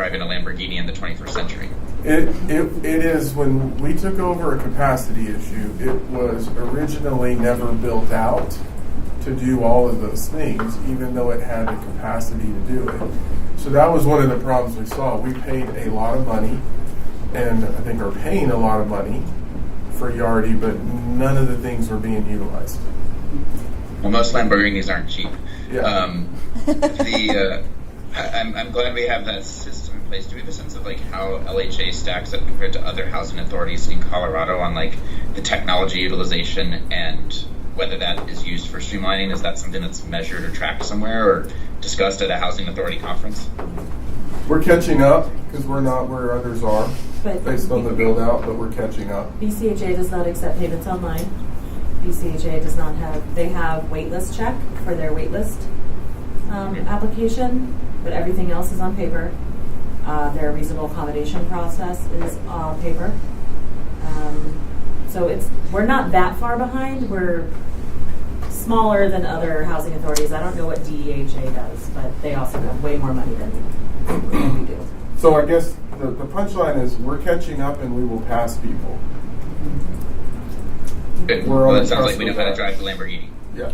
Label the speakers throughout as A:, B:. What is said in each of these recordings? A: drive in a Lamborghini in the 21st century.
B: It, it, it is when we took over a capacity issue, it was originally never built out to do all of those things, even though it had the capacity to do it. So that was one of the problems we saw. We paid a lot of money, and I think are paying a lot of money for Yardi, but none of the things were being utilized.
A: Well, most Lamborghinis aren't cheap.
B: Yeah.
A: Um, the uh, I, I'm, I'm glad we have that system in place. Do we have a sense of like how LHA stacks up compared to other housing authorities in Colorado on like the technology utilization and whether that is used for streamlining? Is that something that's measured or tracked somewhere or discussed at a housing authority conference?
B: We're catching up because we're not where others are
C: But-
B: based on the build out, but we're catching up.
C: BCHA does not accept payments online. BCHA does not have, they have waitlist check for their waitlist um, application, but everything else is on paper. Uh, their reasonable accommodation process is on paper. Um, so it's, we're not that far behind. We're smaller than other housing authorities. I don't know what DEHA does, but they also have way more money than than we do.
B: So I guess the, the punchline is we're catching up and we will pass people.
A: Good.
B: We're
A: Well,
B: on
A: that sounds like we know
B: cusp
A: how to
B: of that.
A: drive the Lamborghini.
B: Yeah.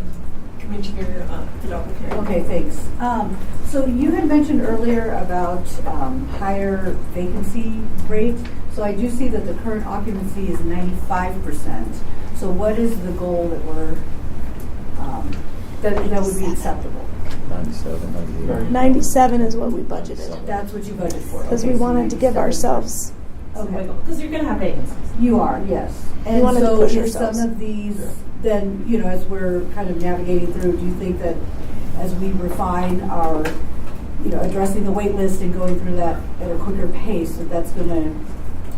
D: Commissioner uh, Fidelka.
E: Okay, thanks. Um, So you had mentioned earlier about um, higher vacancy rate. So I do see that the current occupancy is 95%. So what is the goal that we're, um, that that would be acceptable?
F: 97, 98.
G: 97 is what we budgeted
E: That's what you voted for.
G: because
E: Okay,
G: we
E: so
G: wanted to give
E: 97.
G: ourselves
E: Okay.
C: Because you're going to have vacancies.
E: You are, yes. And
G: wanted to
E: so
G: push
E: if
G: ourselves.
E: some of these,
B: Yeah.
E: then, you know, as we're kind of navigating through, do you think that as we refine our, you know, addressing the wait list and going through that at a quicker pace, that that's going to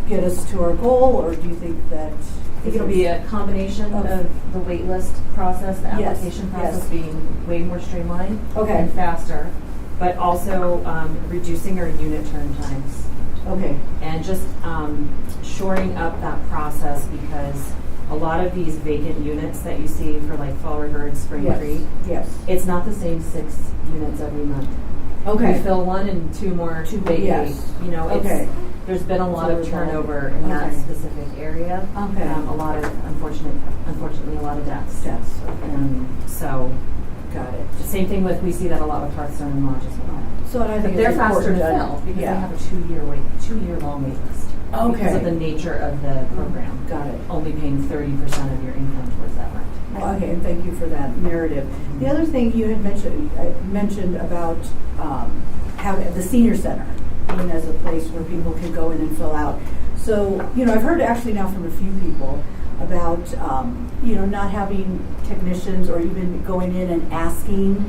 E: get us to our goal, or do you think that?
C: I think it'll be a combination
E: Of-
C: of the waitlist process, the
E: Yes,
C: application process
E: yes.
C: being way more streamlined
E: Okay,
C: and faster, but also um, reducing our unit turn times
E: okay,
C: and just um, shoring up that process because a lot of these vacant units that you see for like Fall River and Spring Creek,
E: yes, yes.
C: it's not the same six units every month. We fill one and two more two vacate.
E: Yes.
C: You know,
E: Okay.
C: it's, there's been a lot of
E: It's overwhelming.
C: turnover in that
E: Okay.
C: specific area.
E: Okay.
C: Um, A lot of unfortunate, unfortunately, a lot of deaths.
E: Yes, okay,
C: Um, So,
E: got it.
C: same thing with, we see that a lot with Hearthstone and Lodge as well.
E: So and I
C: But
E: think
C: they're
E: it's
C: faster
E: important
C: to
E: that-
C: fill because they
E: yeah.
C: have a two-year wait, two-year-long wait list. Because of the
E: Okay,
C: nature of the program.
E: got it.
C: Only paying thirty percent of your income towards that rent.
E: Okay, and thank you for that narrative. The other thing you had mentioned, uh, mentioned about um, how the senior center being as a place where people can go in and fill out. So, you know, I've heard actually now from a few people about, um, you know, not having technicians or even going in and asking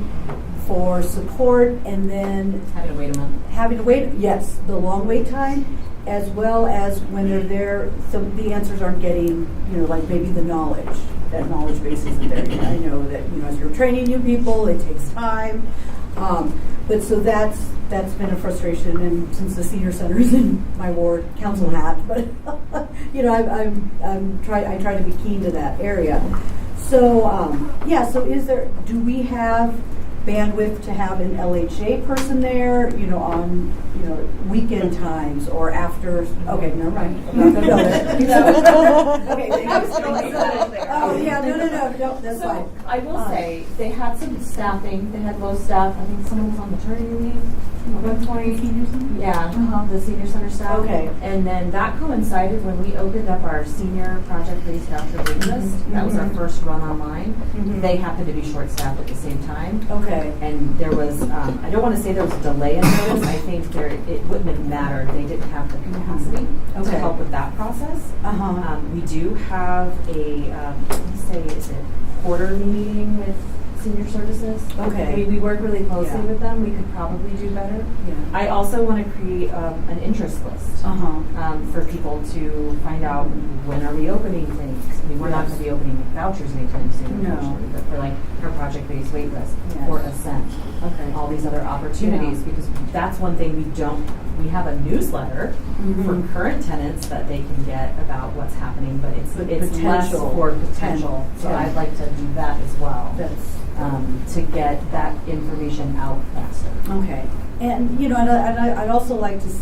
E: for support and then
C: Having to wait a month.
E: having to wait, yes, the long wait time, as well as when they're there, some, the answers aren't getting, you know, like maybe the knowledge, that knowledge base isn't there. I know that, you know, as you're training new people, it takes time. Um, but so that's, that's been a frustration, and since the senior center is in my ward, council hat, but, you know, I'm, I'm, I'm try, I try to be keen to that area. So, um, yeah, so is there, do we have bandwidth to have an LHA person there, you know, on, you know, weekend times or after, okay, never mind. I'm not gonna go there. Okay, thank you.
D: I was gonna leave that there.
E: Oh, yeah, no, no, no, no, that's fine.
D: So I will
E: Uh,
D: say, they had some staffing, they had low staff, I think someone was on maternity leave at one point. Yeah, the senior center staff.
E: Uh-huh. Okay.
D: And then that coincided when we opened up our senior project based after wait list. That was our
E: Mhm.
D: first run online.
E: Mhm.
C: They happened to be short staffed at the same time.
E: Okay,
C: And there was, um, I don't want to say there was a delay in notice, I think there, it wouldn't have mattered, they didn't have the capacity to
E: Mm-hmm. Okay.
C: help with that process.
D: Uh,
E: uh-huh,
C: Um, we do have a, um, let's say, is it quarterly meeting with senior services?
E: Okay.
C: We, we work really closely
E: Yeah.
C: with them, we could probably do better.
E: yeah,
C: I also want to create, um, an interest list,
E: uh-huh,
C: um, for people to find out when are we opening clinics? I mean, we're not
E: Yes.
C: going to be opening vouchers anytime soon,
E: No.
C: unfortunately, but for like, our project-based wait list,
E: Yes.
C: or Ascent
E: okay.
C: all these other opportunities because that's one thing we don't we have a newsletter
E: Mhm.
C: for current tenants that they can get about what's happening but it's
E: But
C: it's less
E: potential.
C: for potential so
E: Yeah.
C: i'd like to do that as well
E: That's, uh,
C: um, to get that information out faster
E: okay. And, you know, and I, and I- I'd also like to